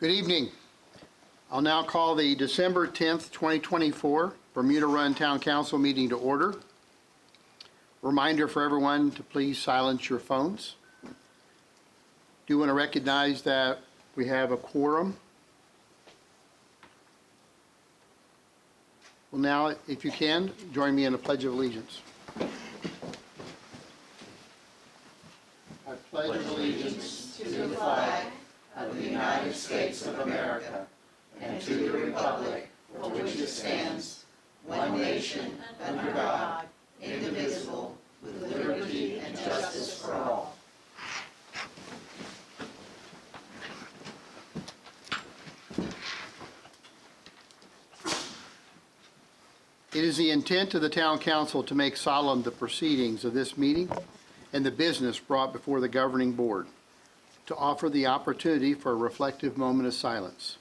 Good evening. I'll now call the December 10th, 2024 Bermuda Run Town Council meeting to order. Reminder for everyone to please silence your phones. Do want to recognize that we have a quorum. Well, now, if you can, join me in a pledge of allegiance. I pledge allegiance It is the intent of the town council to make solemn the proceedings of this meeting and the business brought before the governing board, to offer the opportunity for a reflective moment of silence.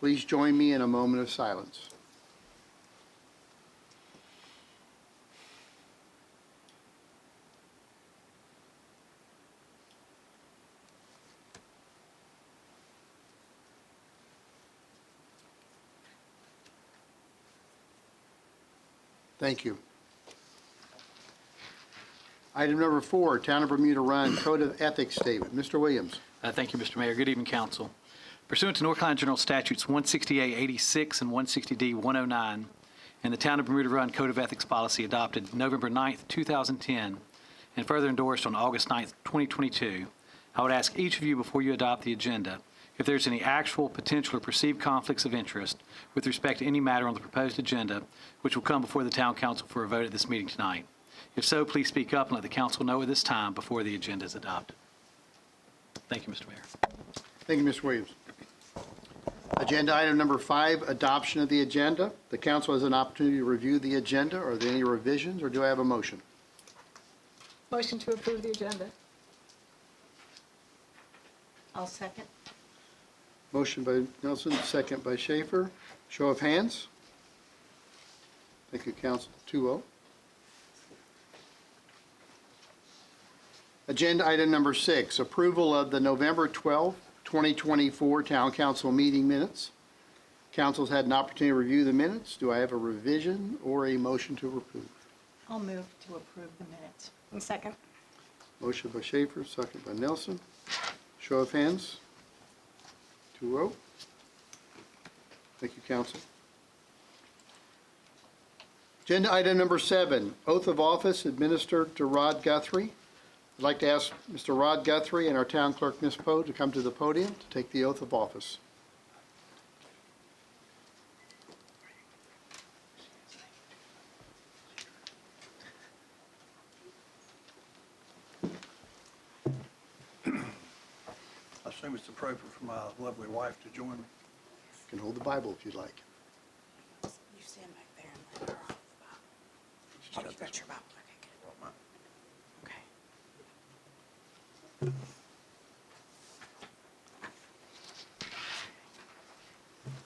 Please join me in a moment of silence. Thank you. Item number four, Town of Bermuda Run Code of Ethics Statement. Mr. Williams. Uh, Thank you, Mr. Mayor. Good evening, council. Pursuant to North Carolina General Statutes 168-86 and 160D-109, and oh the Town of Bermuda Run Code of Ethics Policy adopted November 9th, 2010, and further endorsed on August 9th, 2022, I would ask each of you before you adopt the agenda if there's any actual, potential, or perceived conflicts of interest with respect to any matter on the proposed agenda, which will come before the town council for a vote at this meeting tonight. If so, please speak up and let the council know at this time before the agenda is adopted. Thank you, Mr. Mayor. Thank you, Mr. Williams. Agenda item number five, adoption of the agenda. The council has an opportunity to review the agenda. Are there any revisions, or do I have a motion? Motion to approve the agenda. I'll second. Motion by Nelson, second by Schaefer. Show of hands. Thank you, oh. council, 2-0. Agenda item number six, approval of the November 12, 2024 Town Council meeting minutes. Council's had an opportunity to review the minutes. Do I have a revision or a motion to approve? I'll move to approve the minutes. second. Motion by Schaefer, second by Nelson. Show of hands. 2-0. Thank you, council. Agenda item number seven, oath of office administered to Rod Guthrie. I'd like to ask Mr. Rod Guthrie and our town clerk, Ms. Poe, to come to the podium to take the oath of office. I assume it's appropriate for my lovely wife to join me. You can hold the Bible if you'd like. You stand back there and let her off the box. She's got You got this. your box, okay, good. Okay.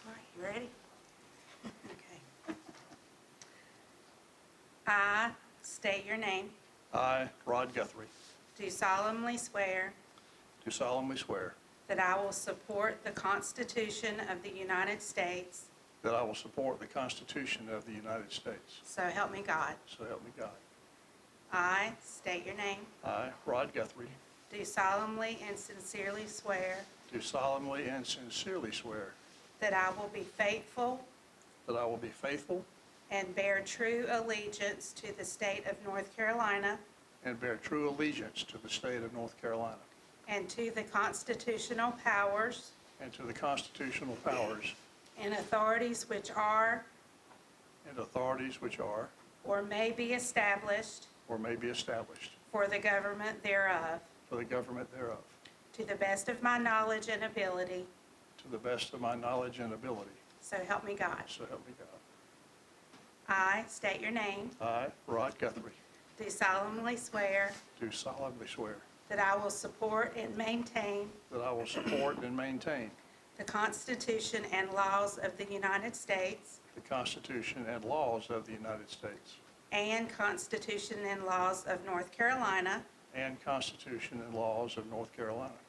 All right, you ready? Okay. I state your name, I, Rod Guthrie, do solemnly swear do solemnly swear that I will support the Constitution of the United States, that I will support the Constitution of the United States. so help me God. So help me God. I state your name, I, Rod Guthrie, do solemnly and sincerely swear do solemnly and sincerely swear That I will be faithful that I will be faithful and bear true allegiance to the state of North Carolina and bear true allegiance to the state of North Carolina and to the constitutional powers and to the constitutional powers and authorities which are and authorities which are or may be established or may be established for the government thereof, for the government thereof, to the best of my knowledge and ability, to the best of my knowledge and ability. so help me God. So help me God. I state your name, I, Rod Guthrie, do solemnly swear do solemnly swear that I will support and maintain That I will support and maintain the Constitution and laws of the United States the Constitution and laws of the United States and Constitution and laws of North Carolina, and Constitution and laws of North Carolina,